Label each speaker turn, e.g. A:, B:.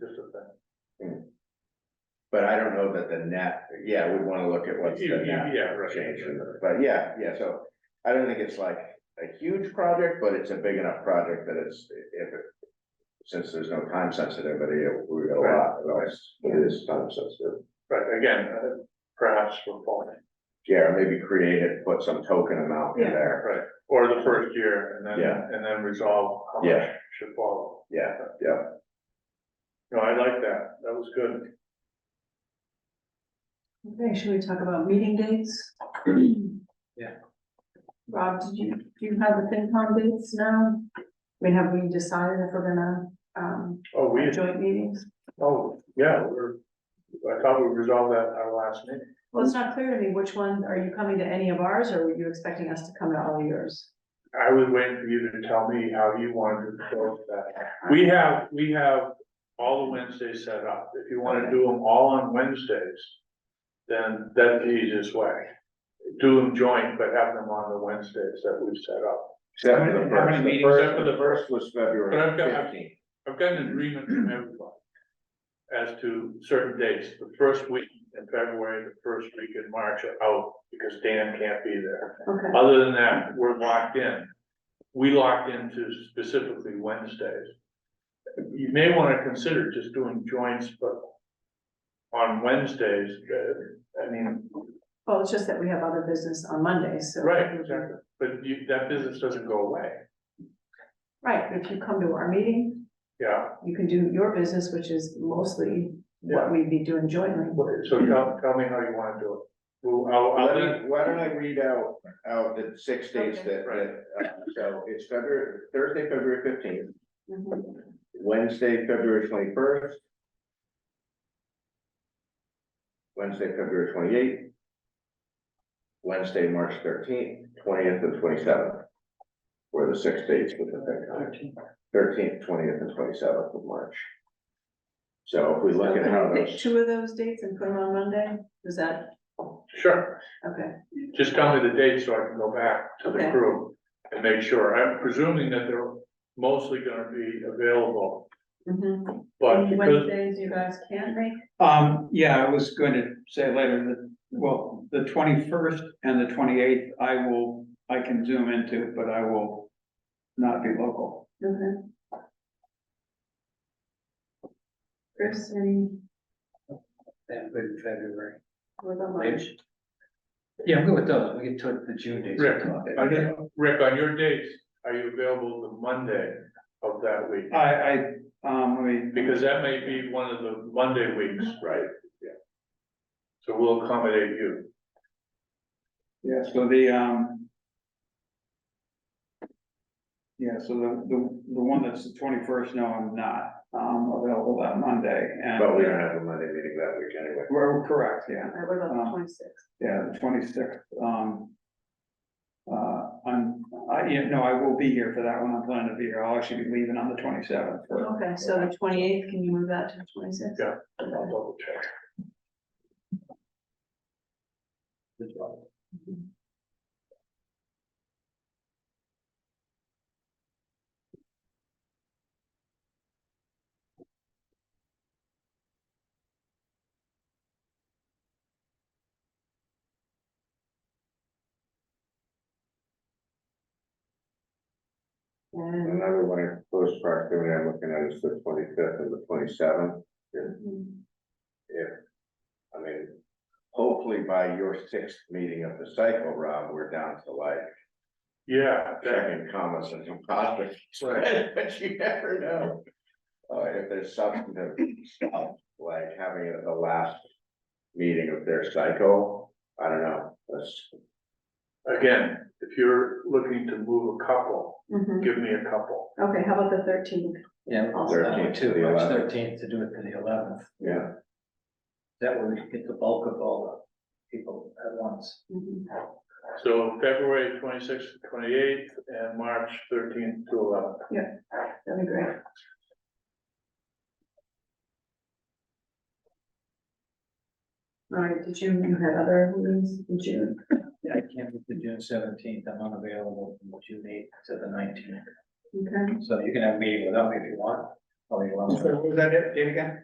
A: But I don't know that the net, yeah, we'd wanna look at what's
B: You-
A: the
B: you-
A: net
B: yeah, right.
A: change, but yeah, yeah, so. I don't think it's like a huge project, but it's a big enough project that it's, if it. Since there's no time sensitivity, it would be a lot, it always- it is time sensitive.
B: But again, uh, perhaps we're falling,
A: Yeah, or maybe create it, put some token amount in
C: Yeah.
A: there,
B: right, or the first year, and
A: Yeah.
B: then, and then resolve how much
A: Yeah.
B: should follow.
A: yeah, yeah,
B: No, I like that, that was good.
C: Okay, should we talk about meeting dates?
B: Yeah.
C: Rob, did you, do you have the FinCom dates now? I mean, have we decided if we're gonna, um,
B: Oh, we,
C: have joint meetings?
B: oh, yeah, we're, I thought we resolved that at our last meeting.
C: Well, it's not clear to me which one, are you coming to any of ours, or were you expecting us to come to all yours?
B: I was waiting for you to tell me how you wanted to go with that. We have, we have all the Wednesdays set up, if you wanna do them all on Wednesdays, then that's the easiest way. Do them joint, but have them on the Wednesdays that we've set up.
A: Except
B: How
A: for
B: many-
A: the
B: how many
A: first, the
B: meetings?
A: first, the first was
B: But I've
A: February
B: got- I've-
A: fifteenth.
B: I've got an agreement from everybody as to certain dates, the first week in February, the first week in March are out because Dan can't be there.
C: Okay,
B: Other than that, we're locked in. We locked into specifically Wednesdays. You may want to consider just doing joints, but on Wednesdays, uh, I mean,
C: well, it's just that we have other business on Mondays, so.
B: right, exactly, but you, that business doesn't go away.
C: Right, but if you come to our meeting,
B: Yeah,
C: you can do your business, which is mostly what we'd be doing jointly.
B: so tell, tell me how you want to do it. Well, I'll,
A: Why
B: I'll leave-
A: don't I- why don't I read out, out the six dates that, that, uh, so it's February, Thursday, February fifteenth,
C: Mhm.
A: Wednesday, February twenty-first, Wednesday, February twenty-eighth, Wednesday, March thirteenth, twentieth, and twenty-seventh. Were the six dates within that time, thirteenth, twentieth, and twenty-seventh of March. So if we
C: So
A: look at
C: can
A: how
C: we pick
A: those,
C: Two of those dates and put them on Monday, is that,
B: sure.
C: okay,
B: Just tell me the date so I can go back to the
C: Okay.
B: crew and make sure. I'm presuming that they're mostly gonna be available,
C: mhm,
B: but
C: Any
B: because,
C: Wednesdays you guys can't make,
D: Um, yeah, I was going to say later that, well, the twenty-first and the twenty-eighth, I will, I can zoom into, but I will not be local.
C: okay. Chris, any,
E: That would be February.
C: what about March?
E: Yeah, I'm good with those, we get to the June dates.
B: Rick,
E: Okay.
B: on your- Rick, on your dates, are you available the Monday of that week?
D: I, I, um, I mean,
B: Because that may be one of the Monday weeks,
A: right,
B: so we'll accommodate you.
D: yeah, so the, um. Yeah, so the, the, the one that's the twenty-first, no, I'm not, um, available that Monday and.
A: but we don't have a Monday meeting that week anyway.
D: We're correct, yeah.
C: All right, what about the
D: Um,
C: twenty-sixth?
D: Yeah, the twenty-sixth, um. Uh, I'm, I, yeah, no, I will be here for that one, I'm planning to be here, I'll actually be leaving on the twenty-seventh.
C: Okay, so the twenty-eighth, can you move that to the twenty-sixth?
B: Yeah. I'll double check.
C: And,
A: Another one in close proximity I'm looking at is the twenty-fifth and the twenty-seventh.
C: mhm,
A: If, I mean, hopefully by your sixth meeting of the cycle, Rob, we're down to like
B: Yeah, that-
A: checking commas and some positive spread, but you never know. Uh, if there's substantive stuff, like having it at the last meeting of their cycle, I don't know, that's,
B: again, if you're looking to move a couple,
C: mhm.
B: give me a couple.
C: Okay, how about the thirteenth?
E: Yeah,
C: Also,
E: that one
A: 13th to
E: too,
A: the
E: March
A: 11th.
E: thirteenth to do it to the eleventh,
A: yeah,
E: that way we can get the bulk of all the people at once.
C: mhm.
B: So February twenty-sixth, twenty-eighth, and March thirteenth to eleventh.
C: That'd be great. All right, did you, you had other meetings in June?
E: Yeah, I can't do the June seventeenth, I'm unavailable from June eighth to the nineteenth,
C: Okay.
E: so you can have a meeting without me if you want. Probably 11th.
D: Was that it, Dave again?